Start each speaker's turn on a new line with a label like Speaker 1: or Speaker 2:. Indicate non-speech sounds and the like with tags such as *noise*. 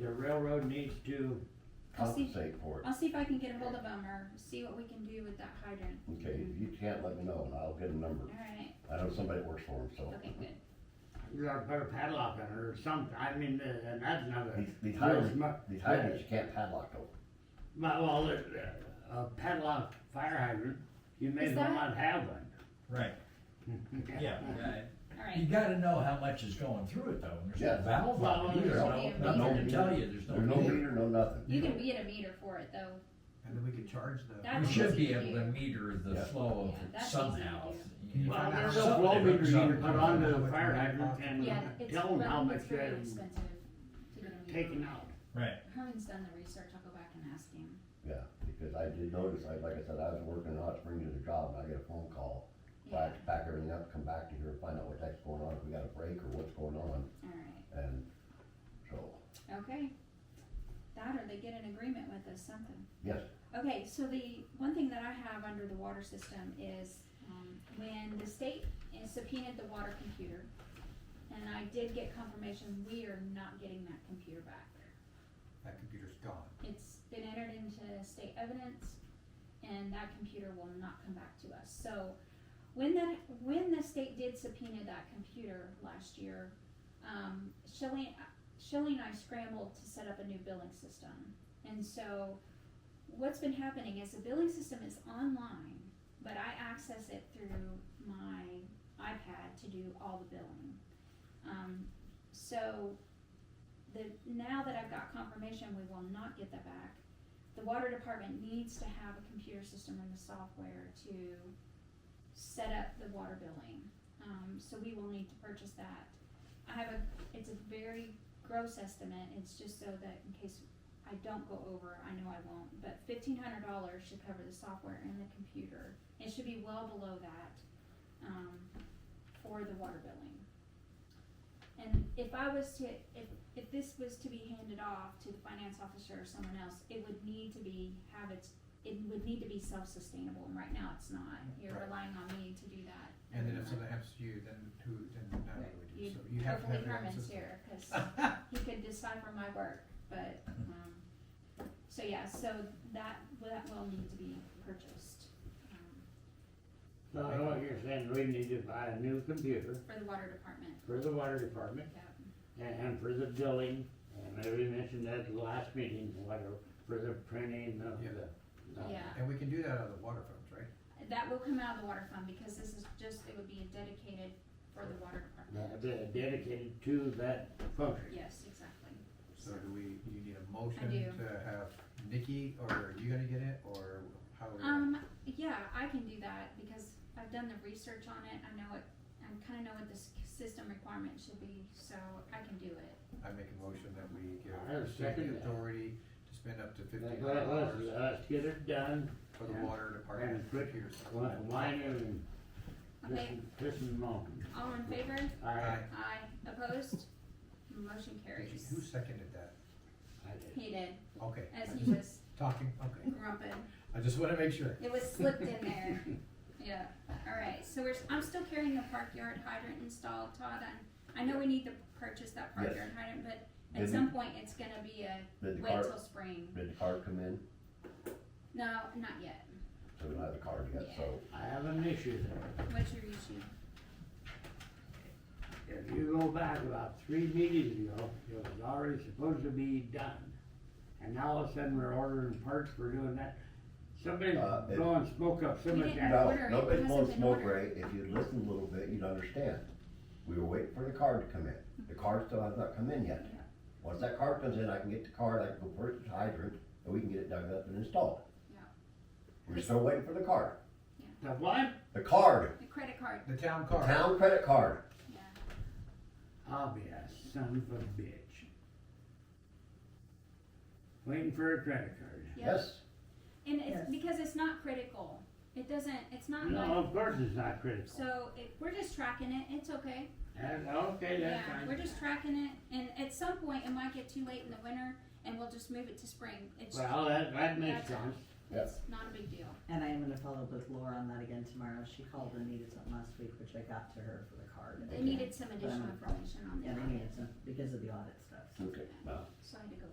Speaker 1: the railroad needs to,
Speaker 2: I'll see,
Speaker 3: compensate for it.
Speaker 2: I'll see if I can get a hold of them or see what we can do with that hydrant.
Speaker 3: Okay, if you can't, let me know, and I'll get a number.
Speaker 2: Alright,
Speaker 3: I know somebody that works for him, so.
Speaker 2: okay, good.
Speaker 1: you gotta put a padlock on it or something, I mean, uh, and that's another.
Speaker 3: These- These
Speaker 1: Yes,
Speaker 3: hydrants,
Speaker 1: my-
Speaker 3: these hydrants, you can't padlock them.
Speaker 1: My, well, the- the- a padlock fire hydrant, you may
Speaker 2: Is
Speaker 1: as well
Speaker 2: that-
Speaker 1: not have one.
Speaker 4: Right, yeah.
Speaker 5: Right.
Speaker 4: You
Speaker 2: Alright,
Speaker 4: gotta know how much is going through it though, and there's
Speaker 3: Yeah.
Speaker 4: no valve on it either,
Speaker 1: Well,
Speaker 2: there's
Speaker 4: no,
Speaker 2: no-
Speaker 4: nothing to tell you, there's no.
Speaker 3: There's no meter, no nothing.
Speaker 2: you can get a meter for it though.
Speaker 6: And then we could charge the.
Speaker 2: That
Speaker 4: We
Speaker 2: one's
Speaker 4: should be
Speaker 2: easy to
Speaker 4: able to
Speaker 2: do.
Speaker 4: meter
Speaker 3: Yeah.
Speaker 4: the flow
Speaker 2: Yeah,
Speaker 4: of it
Speaker 2: that's
Speaker 4: somehow.
Speaker 2: easy to
Speaker 4: You know,
Speaker 1: Well, there's a
Speaker 4: something
Speaker 1: flow
Speaker 4: to
Speaker 1: meter you
Speaker 4: do.
Speaker 1: can put on the fire
Speaker 6: Yeah,
Speaker 1: hydrant
Speaker 2: Yeah,
Speaker 1: and
Speaker 2: it's,
Speaker 1: tell them how
Speaker 2: well,
Speaker 1: much
Speaker 2: it's very
Speaker 1: they're
Speaker 2: expensive to get a meter.
Speaker 1: taking out.
Speaker 4: Right,
Speaker 2: Herman's done the research, I'll go back and ask him.
Speaker 3: Yeah, because I did notice, I, like I said, I was working in Hot Springs at a job, and I get a phone call. So I
Speaker 2: Yeah,
Speaker 3: had to pack everything up, come back to here, find out what the heck's going on, if we got a break or what's going on,
Speaker 2: alright,
Speaker 3: and so,
Speaker 2: okay. That or they get an agreement with us, something.
Speaker 3: yes,
Speaker 2: Okay, so the one thing that I have under the water system is, um, when the state subpoenaed the water computer, and I did get confirmation, we are not getting that computer back.
Speaker 6: That computer's gone.
Speaker 2: It's been entered into state evidence, and that computer will not come back to us. So, when that, when the state did subpoena that computer last year, um, Shelley, Shelley and I scrambled to set up a new billing system. And so, what's been happening is the billing system is online, but I access it through my iPad to do all the billing. Um, so, the, now that I've got confirmation, we will not get that back. The water department needs to have a computer system and the software to set up the water billing. Um, so we will need to purchase that. I have a, it's a very gross estimate, it's just so that in case I don't go over, I know I won't, but fifteen hundred dollars should cover the software and the computer. It should be well below that, um, for the water billing. And if I was to, if, if this was to be handed off to the finance officer or someone else, it would need to be, have its, it would need to be self-sustainable, and right now it's not. You're
Speaker 6: Right.
Speaker 2: relying on me to do that.
Speaker 6: And then
Speaker 2: every month.
Speaker 6: if something happens to you, then who, then now what do we do?
Speaker 2: You-
Speaker 6: So you have to
Speaker 2: Hopefully
Speaker 6: have your own
Speaker 2: Herman's
Speaker 6: system.
Speaker 2: here, cause
Speaker 6: *laughs*
Speaker 2: he could decipher my work, but, um, so yeah, so that, that will need to be purchased, um,
Speaker 1: So I know what you're saying, we need to buy a new computer
Speaker 2: for the water department,
Speaker 1: for the water department
Speaker 2: yeah.
Speaker 1: and, and for the billing, and maybe mentioned that at the last meeting, whatever, for the printing of
Speaker 6: Yeah.
Speaker 1: the. the-
Speaker 2: Yeah,
Speaker 6: And we can do that out of the water funds, right?
Speaker 2: that will come out of the water fund, because this is just, it would be dedicated for the water department.
Speaker 1: the- the Dedicated to that function.
Speaker 2: Yes, exactly.
Speaker 6: So do we, do you need a motion
Speaker 2: do.
Speaker 6: to have Nikki, or are you gonna get it, or how? are we gonna-
Speaker 2: Um, yeah, I can do that, because I've done the research on it, I know it, I kinda know what the s- system requirement should be, so I can do it.
Speaker 6: I make a motion that we give
Speaker 1: I
Speaker 6: Christine
Speaker 1: second
Speaker 6: the
Speaker 1: that.
Speaker 6: authority to spend up to fifteen
Speaker 1: Let-
Speaker 6: hundred
Speaker 1: let-
Speaker 6: dollars
Speaker 1: Let's, let's get it done,
Speaker 6: for the
Speaker 1: yeah.
Speaker 6: water department
Speaker 1: And put-
Speaker 6: computer system.
Speaker 1: li- line it and this
Speaker 2: Okay,
Speaker 1: and, this and mountain.
Speaker 2: all in favor?
Speaker 1: I,
Speaker 6: Aye.
Speaker 2: Aye, opposed? Motion
Speaker 6: Did
Speaker 2: carries.
Speaker 6: you- Who seconded that?
Speaker 1: I did.
Speaker 2: He did,
Speaker 6: Okay.
Speaker 2: as
Speaker 6: I
Speaker 2: he
Speaker 6: just-
Speaker 2: was
Speaker 6: Talking, okay.
Speaker 2: grumping.
Speaker 6: I just wanna make sure.
Speaker 2: It was slipped in there. Yeah, alright, so we're, I'm still carrying the park yard hydrant installed, Todd, and I know we need to purchase that park
Speaker 3: Yes.
Speaker 2: yard hydrant, but at
Speaker 3: Did-
Speaker 2: some point, it's gonna be a
Speaker 3: did the
Speaker 2: wait
Speaker 3: car,
Speaker 2: till spring.
Speaker 3: did the car come in?
Speaker 2: No, not yet.
Speaker 3: So we don't have the car yet, so,
Speaker 1: I have an issue there.
Speaker 2: What's your issue?
Speaker 1: If you go back about three meetings ago, it was already supposed to be done. And now all of a sudden, we're ordering parts for doing that. Somebody's
Speaker 3: Uh, it-
Speaker 1: blowing smoke up somebody's ass.
Speaker 2: didn't
Speaker 3: no,
Speaker 2: order, it
Speaker 3: nobody's
Speaker 2: hasn't
Speaker 3: blowing
Speaker 2: been
Speaker 3: smoke, Ray,
Speaker 2: ordered.
Speaker 3: if you'd listen a little bit, you'd understand. We were waiting for the car to come in, the car still has not come in yet.
Speaker 2: Yeah.
Speaker 3: Once that car comes in, I can get the car, and I can go purchase the hydrant, and we can get it dug up and installed.
Speaker 2: Yeah.
Speaker 3: We're still waiting for the card,
Speaker 1: The what?
Speaker 3: the card,
Speaker 2: The credit card,
Speaker 6: The town
Speaker 3: the
Speaker 6: car.
Speaker 3: town credit card.
Speaker 2: yeah.
Speaker 1: I'll be a son of a bitch. Waiting for a credit card.
Speaker 2: Yeah.
Speaker 3: Yes,
Speaker 2: And it's because it's not critical. It doesn't, it's not
Speaker 1: No,
Speaker 2: like,
Speaker 1: of course it's not critical.
Speaker 2: so it, we're just tracking it, it's okay.
Speaker 1: That's- Okay,
Speaker 2: Yeah,
Speaker 1: that's fine.
Speaker 2: we're just tracking it, and at some point, it might get too late in the winter, and we'll just move it to spring. It's,
Speaker 1: Well, that, that makes
Speaker 2: That's-
Speaker 1: sense.
Speaker 2: it's not a big deal.
Speaker 7: And I am gonna follow up with Laura on that again tomorrow. She called and needed something last week, which I got to her for the card.
Speaker 2: They needed some additional
Speaker 7: Um,
Speaker 2: information on
Speaker 7: Yeah, they
Speaker 2: that,
Speaker 7: needed some, because of the audit stuff, so.
Speaker 3: okay, well.
Speaker 2: so I had to go